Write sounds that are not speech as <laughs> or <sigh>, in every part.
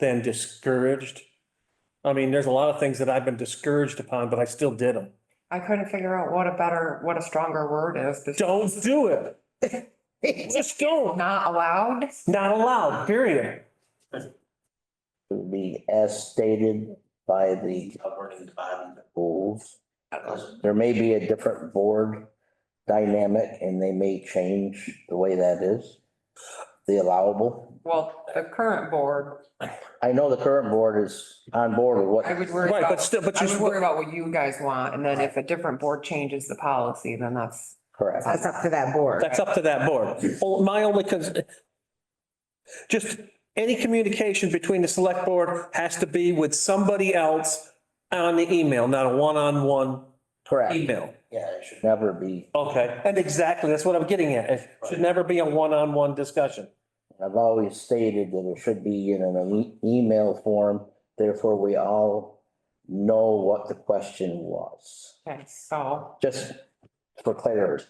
than discouraged. I mean, there's a lot of things that I've been discouraged upon, but I still did them. I couldn't figure out what a better, what a stronger word is. This- Don't do it. Just don't. Not allowed? Not allowed, period. to be as stated by the governing body rules. There may be a different board dynamic and they may change the way that is, the allowable. Well, the current board, I know the current board is on board with I what, would worry Right, about, but still, but I would you, worry about what you guys want. And then if a different board changes the policy, then that's, correct. That's up to that board. that's up to that board. Well, My only, cons- just any communication between the select board has to be with somebody else on the email, not a one-on-one Correct. email. Yeah, it should never be. Okay, and exactly, that's what I'm getting at. It should never be a one-on-one discussion. I've always stated that it should be in an e- email form, therefore we all know what the question was. okay, so Just for clarity.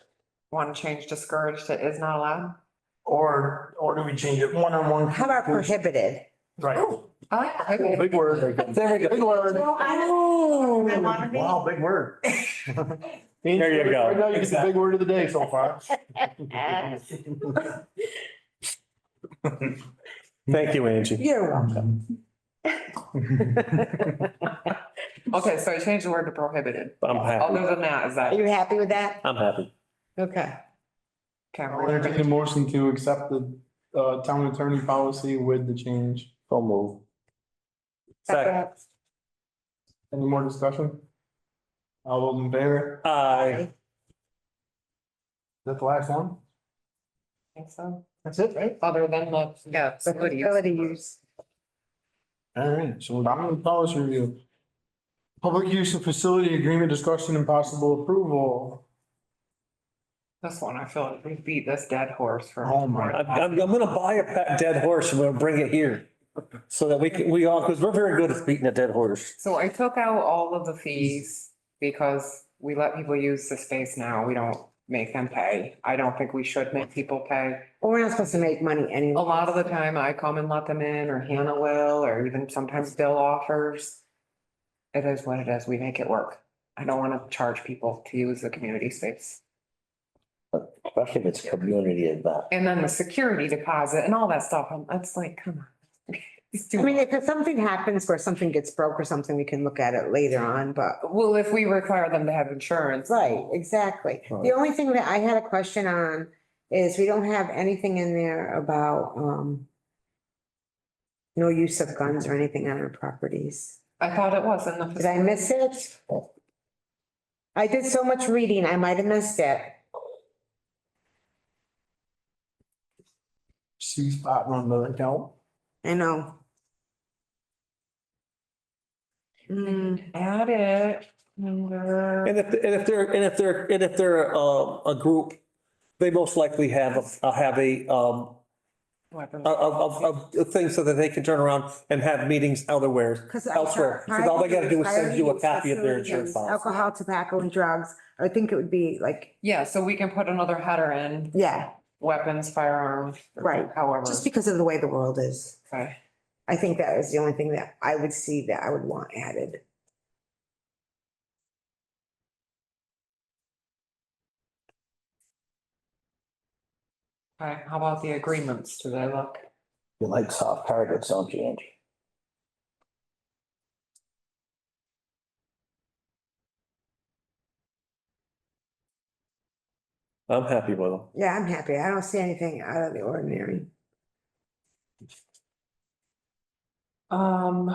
want to change discouraged to is not allowed? Or, or do we change it one-on-one? How about prohibited? Right. Oh, I like that. Okay. Big word. Oh, There we go. Oh. Big word. Well, I don't- I wanna be- Wow, <laughs> big word. There you go. Right now, you get the big word of the day so far. Thank you, Angie. You're welcome. Okay, so I changed the word to prohibited. I'm happy. Other than that, is Are that, you happy with that? I'm happy. Okay. I'll entertain okay, a motion to accept the, uh, town attorney policy with the change. So move. Second. Any more discussion? All those in favor? Aye. Is that the last one? I think so. That's it, right? Other than the, yeah, facility use. Facility use. All right, so dominant policy review. Public use of facility agreement discussion and possible approval. This one, I feel like we beat this dead horse for. Oh my I'm, I'm, I'm gonna buy a pet dead horse and we'll bring it here. So that we can, we all, because we're very good at beating a dead horse. So I took out all of the fees because we let people use the space now. We don't make them pay. I don't think we should make people pay. Well, We're not supposed to make money A anyway. lot of the time I come and let them in or Hannah will, or even sometimes Bill offers. It is what it is. We make it work. I don't want to charge people to use the community space. Especially if it's community event. And then the security deposit and all that stuff. I'm, that's like, come on. <laughs> It's too I mean, much. if something happens where something gets broke or something, we can look at it later on, but. Well, if we require them to have insurance. Right, exactly. The Right. only thing that I had a question on is we don't have anything in there about, um, no use of guns or anything on our properties. I thought it was in the. Did I miss it? I did so much reading, I might have missed it. C spot run doesn't count. I know. Mm. Hmm, Add it. Number. And if, and if they're, and if they're, and if they're, um, a group, they most likely have, a have a, um, Weapons. of, of, of- of things so that they can turn around and have meetings elsewhere. Cause. Elsewhere, because all they gotta do is send you a copy of their insurance policy. Alcohol, tobacco and drugs. I think it would be like, Yeah, so we can put another header in, yeah, weapons, firearms. Right. However. just because of the way the world is. Okay. I think that is the only thing that I would see that I would want added. Okay, how about the agreements? Do they look? You like soft targets, don't you, Angie? I'm happy with them. Yeah, I'm happy. I don't see anything out of the ordinary. Um.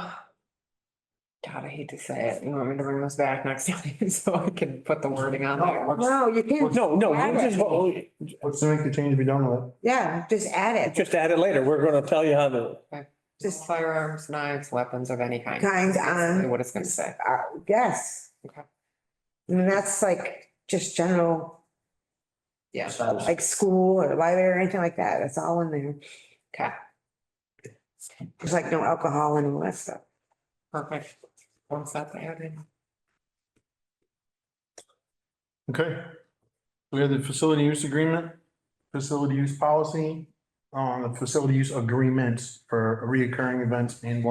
God, I hate to say it. You want me to bring this back next <laughs> time so I can put the wording on there? No, you can't, No, no, we'll just, Right. we'll Let's make the change, be done with it. yeah, just add it. just add it later. We're gonna tell you how to. Just- uh, Firearms, knives, weapons of any kind. Kind Basically on. What it's gonna say. Uh, yes. Okay. I mean, that's like just general, Yeah, like school or library or anything like that. It's all in there. okay, There's like no alcohol and all that stuff. perfect. Once that's added. Okay. We have the facility use agreement, facility use policy, on the facility use agreements for reoccurring events and one